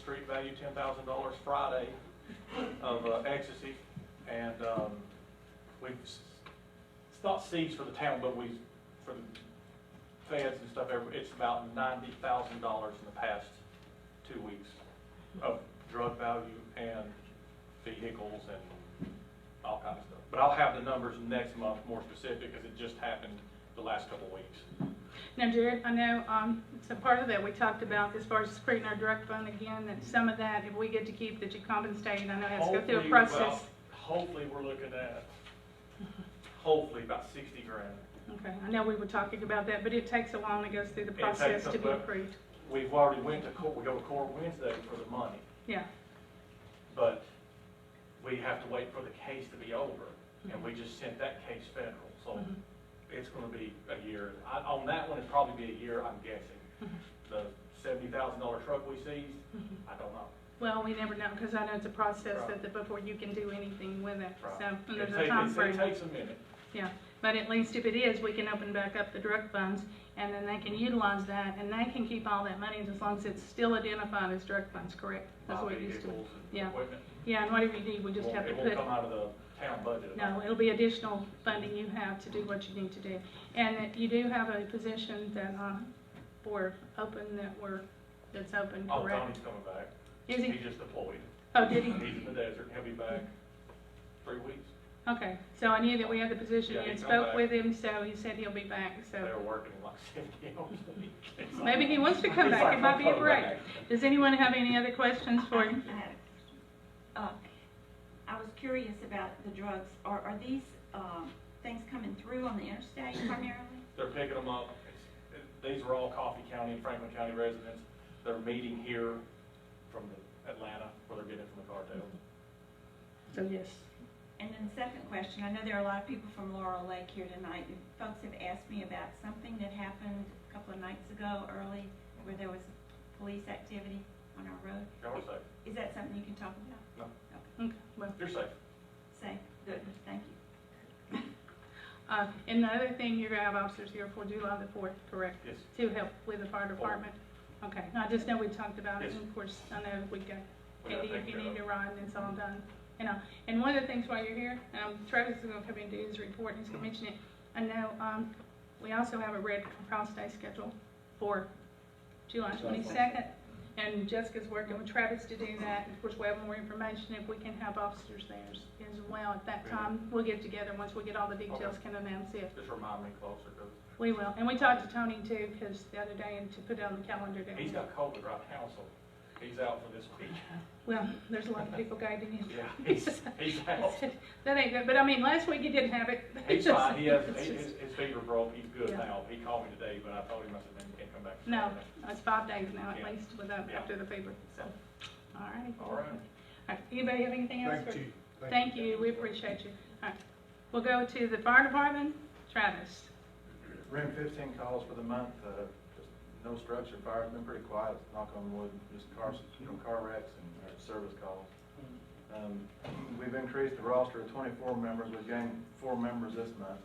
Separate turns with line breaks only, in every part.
street value ten thousand dollars Friday of uh, ecstasy. And, um, we've, s- it's not seized for the town, but we, for the feds and stuff, every- it's about ninety thousand dollars in the past two weeks of drug value and vehicles and all kinds of stuff. But I'll have the numbers next month more specific, because it just happened the last couple of weeks.
Now Jared, I know, um, so part of that we talked about as far as creating our direct fund again, that some of that, if we get to keep, that you compensate, I know it has to go through a
Hopefully, well,
process.
Hopefully, we're looking at, hopefully about sixty grand.
Okay, I know we were talking about that, but it takes a while and it goes through the
It
process
takes a
to be
book.
approved.
We've already went to court, we go to court Wednesday for the money,
Yeah,
but we have to wait for the case to be over, and we just sent that case federal, so
Mhm.
it's gonna be a year. I, on that one, it'd probably be a year, I'm guessing.
Mm-hmm.
The seventy thousand dollar truck we seized, I don't know.
well, we never know, because I know it's a process
Right.
that, the- before you can do anything with it,
Right.
so, and
It
there's
take-
a
it-
time frame.
It takes a minute.
Yeah, but at least if it is, we can open back up the drug funds, and then they can utilize that, and they can keep all that money as long as it's still identified as drug funds, correct? That's
Buy
what it used to be.
vehicles and
Yeah.
equipment.
Yeah, and whatever you need, we just
Won't-
have to
It won't
put,
come out of the town budget.
no, it'll be additional funding you have to do what you need to do. And that you do have a position that, uh, for open that we're, that's open,
Oh,
correct?
Tony's coming back.
Is he,
He's just deployed.
oh, did he?
He's in the desert, he'll be back three weeks.
Okay, so I knew that we had the position,
Yeah,
you had
he'll
spoke
back.
with him, so he said he'll be back,
They're
so
working like seventy hours a week. It's like-
Oh. maybe he wants to come
It's
back,
like
it might be a
I'm
break.
coming back.
Does anyone have any other questions for him?
I had a question. Uh, I was curious about the drugs. Are, are these, um, things coming through on the interstate primarily?
They're picking them up. It's- it- These are all Coffee County and Franklin County residents. They're meeting here from the- Atlanta, where they're getting it from the cartel.
So yes.
And then the second question, I know there are a lot of people from Laurel Lake here tonight. and Folks have asked me about something that happened a couple of nights ago early where there was police activity on our road.
Y'all are safe.
Is that something you can talk about?
Okay, well,
You're safe.
Say, good, thank you.
uh, and the other thing, you're gonna have officers here for July the fourth, correct?
Yes.
To help with the fire department? Okay, I just know we talked about
Oh.
it,
Yes.
and of course, I know we got,
We got
Andy,
taken
if you
care
need to
of.
ride, it's all done. You know, and one of the things while you're here, um, Travis is gonna come in and do his report, and he's gonna mention it. I know, um, we also have a Red Cross Day scheduled for July twenty-second, and Jessica's working with Travis to do that. Of course, we have more information if we can have officers there as- as well at that
Really?
time. We'll get together, once we get all the details,
Okay.
can announce it.
Just remind me closer, because
We will, and we talked to Tony too, because the other day, and to put it on the calendar. that-
he's got COVID right now, so he's out for this week.
Well, there's a lot of people guiding him.
Yeah, he's, he's out.
That ain't good, but I mean, last week he didn't have it.
He's
Just-
fine, he has,
it's
his,
just-
his fever broke, he's good
Yeah.
now, he called me today, but I told him, I said, man, you can't come back.
No, it's five days now at
Yeah.
least without,
Yeah.
after the fever, so, all right.
All right.
Anybody have anything else? for-
Thank you.
Thank you, we appreciate you. All right, we'll go to the fire department, Travis.
Room fifteen calls for the month, uh, just no structure, fire, been pretty quiet, knock on wood, just cars, you know, car wrecks and uh, service calls. Um, we've increased the roster to twenty-four members, we've gained four members this month.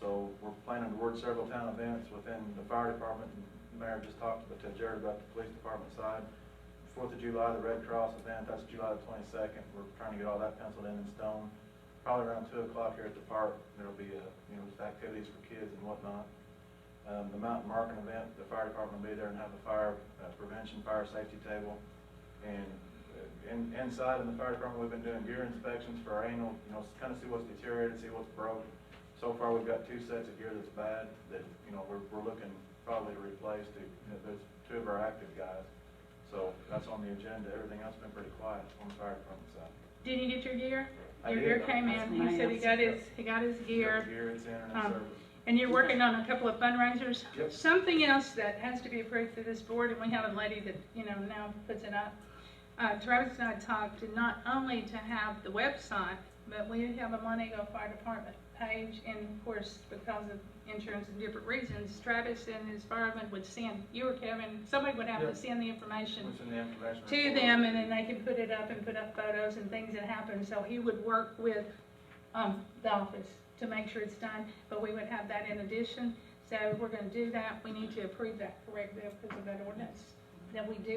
So we're planning to work several town events within the fire department, and Mayor just talked to Jared about the police department side. Fourth of July, the Red Cross event, that's July the twenty-second, we're trying to get all that penciled in in stone. Probably around two o'clock here at the park, there'll be, uh, you know, just activities for kids and whatnot. Um, the mountain marking event, the fire department will be there and have a fire uh, prevention, fire safety table. And uh, in, inside in the fire department, we've been doing gear inspections for our annual, you know, kind of see what's deteriorated, see what's broke. So far, we've got two sets of gear that's bad, that, you know, we're, we're looking probably to replace, to, you know, there's two of our active guys. So that's on the agenda, everything else has been pretty quiet on the fire department side.
Did you get your gear?
I
Your
did.
gear came
That's
in,
my
he said he got
answer.
his, he got his
Got
gear.
the Gear, it's internet
Um,
service.
And you're working on a couple of fundraisers.
Yep.
Something else that has to be approved through this board, and we have a lady that, you know, now puts it up. Uh, Travis and I talked to not only to have the website, but we have a Montego Fire Department page, and of course, because of insurance and different reasons, Travis and his firemen would send, you or Kevin, somebody would have to
Yep.
send the information
What's in the information
to
report?
them, and then they can put it up and put up photos and things that happen. So he would work with, um, the office to make sure it's done, but we would have that in addition. So if we're gonna do that, we need to approve that, correct, Bill, because of that ordinance, that we do